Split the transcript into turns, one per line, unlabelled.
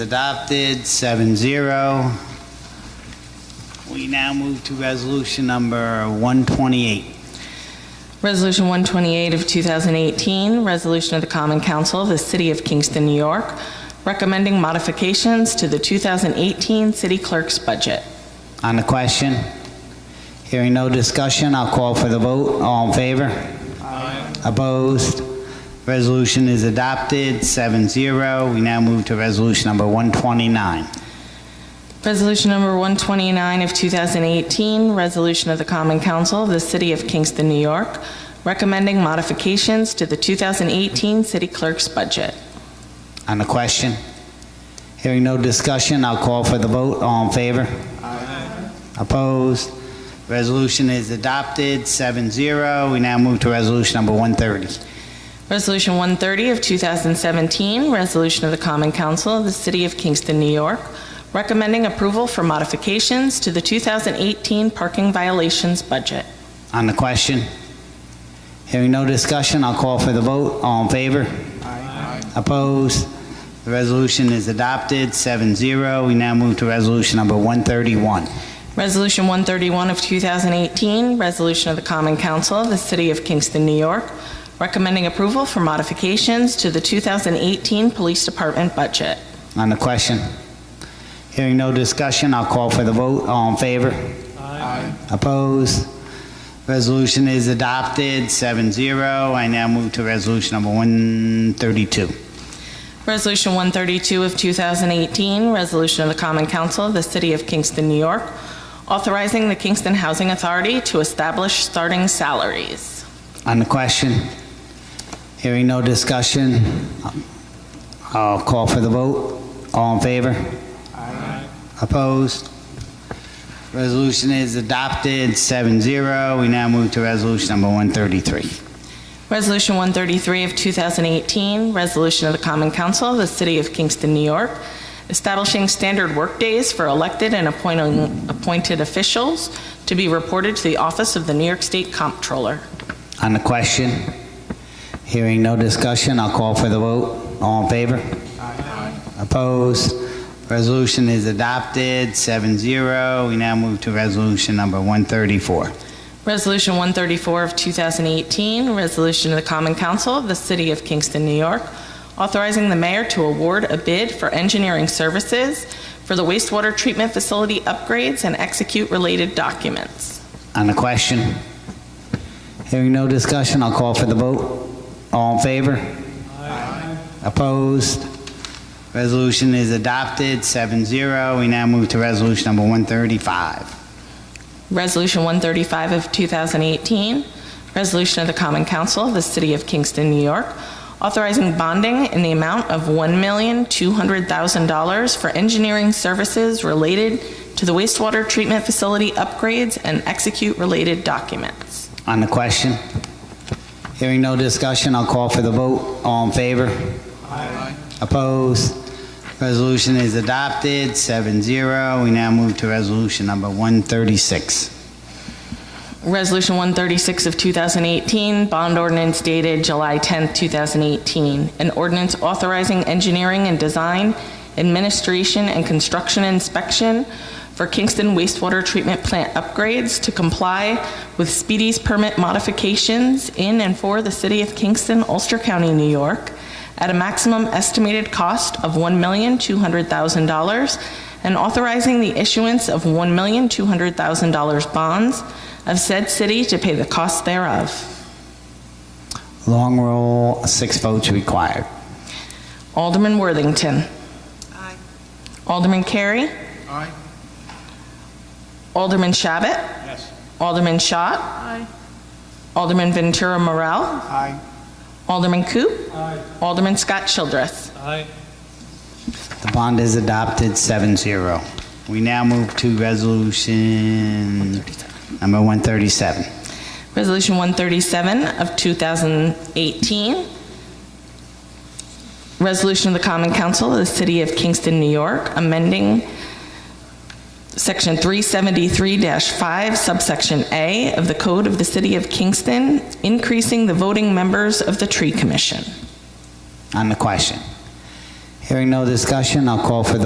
Adopted, seven zero. We now move to resolution number 128.
Resolution 128 of 2018, resolution of the Common Council of the City of Kingston, New York, recommending modifications to the 2018 city clerk's budget.
On the question? Hearing no discussion, I'll call for the vote. All in favor? Aye. Opposed? Resolution is adopted, seven zero. We now move to resolution number 129.
Resolution number 129 of 2018, resolution of the Common Council of the City of Kingston, New York, recommending modifications to the 2018 city clerk's budget.
On the question? Hearing no discussion, I'll call for the vote. All in favor? Aye. Opposed? Resolution is adopted, seven zero. We now move to resolution number 130.
Resolution 130 of 2017, resolution of the Common Council of the City of Kingston, New York, recommending approval for modifications to the 2018 parking violations budget.
On the question? Hearing no discussion, I'll call for the vote. All in favor? Aye. Opposed? The resolution is adopted, 7-0. We now move to resolution number 131.
Resolution 131 of 2018, resolution of the Common Council of the City of Kingston, New York, recommending approval for modifications to the 2018 Police Department budget.
On the question? Hearing no discussion, I'll call for the vote. All in favor? Aye. Opposed? Resolution is adopted, 7-0. I now move to resolution number 132.
Resolution 132 of 2018, resolution of the Common Council of the City of Kingston, New York, authorizing the Kingston Housing Authority to establish starting salaries.
On the question? Hearing no discussion, I'll call for the vote. All in favor? Aye. Opposed? Resolution is adopted, seven zero. We now move to resolution number 133.
Resolution 133 of 2018, resolution of the Common Council of the City of Kingston, New York, establishing standard workdays for elected and appointing- appointed officials to be reported to the Office of the New York State Comptroller.
On the question? Hearing no discussion, I'll call for the vote. All in favor? Aye. Opposed? Resolution is adopted, seven zero. We now move to resolution number 134.
Resolution 134 of 2018, resolution of the Common Council of the City of Kingston, New York, authorizing the mayor to award a bid for engineering services for the wastewater treatment facility upgrades and execute related documents.
On the question? Hearing no discussion, I'll call for the vote. All in favor? Aye. Opposed? Resolution is adopted, 7-0. We now move to resolution number 135.
Resolution 135 of 2018, resolution of the Common Council of the City of Kingston, New York, authorizing bonding in the amount of $1,200,000 for engineering services related to the wastewater treatment facility upgrades and execute related documents.
On the question? Hearing no discussion, I'll call for the vote. All in favor? Aye. Opposed? Resolution is adopted, 7-0. We now move to resolution number 136.
Resolution 136 of 2018, bond ordinance dated July 10, 2018, an ordinance authorizing engineering and design, administration, and construction inspection for Kingston wastewater treatment plant upgrades to comply with Speedy's permit modifications in and for the City of Kingston, Ulster County, New York, at a maximum estimated cost of $1,200,000 and authorizing the issuance of $1,200,000 bonds of said city to pay the cost thereof.
Long roll, six votes required.
Alderman Worthington. Aye. Alderman Carey.
Aye.
Alderman Shabbat.
Yes.
Alderman Schott. Aye. Alderman Ventura Morel.
Aye.
Alderman Coop.
Aye.
Alderman Scott Childress.
Aye.
The bond is adopted, 7-0. We now move to resolution number 137.
Resolution 137 of 2018. Resolution of the Common Council of the City of Kingston, New York, amending Section 373-5 subsection A of the Code of the City of Kingston, increasing the voting members of the Tree Commission.
On the question. Hearing no discussion, I'll call for the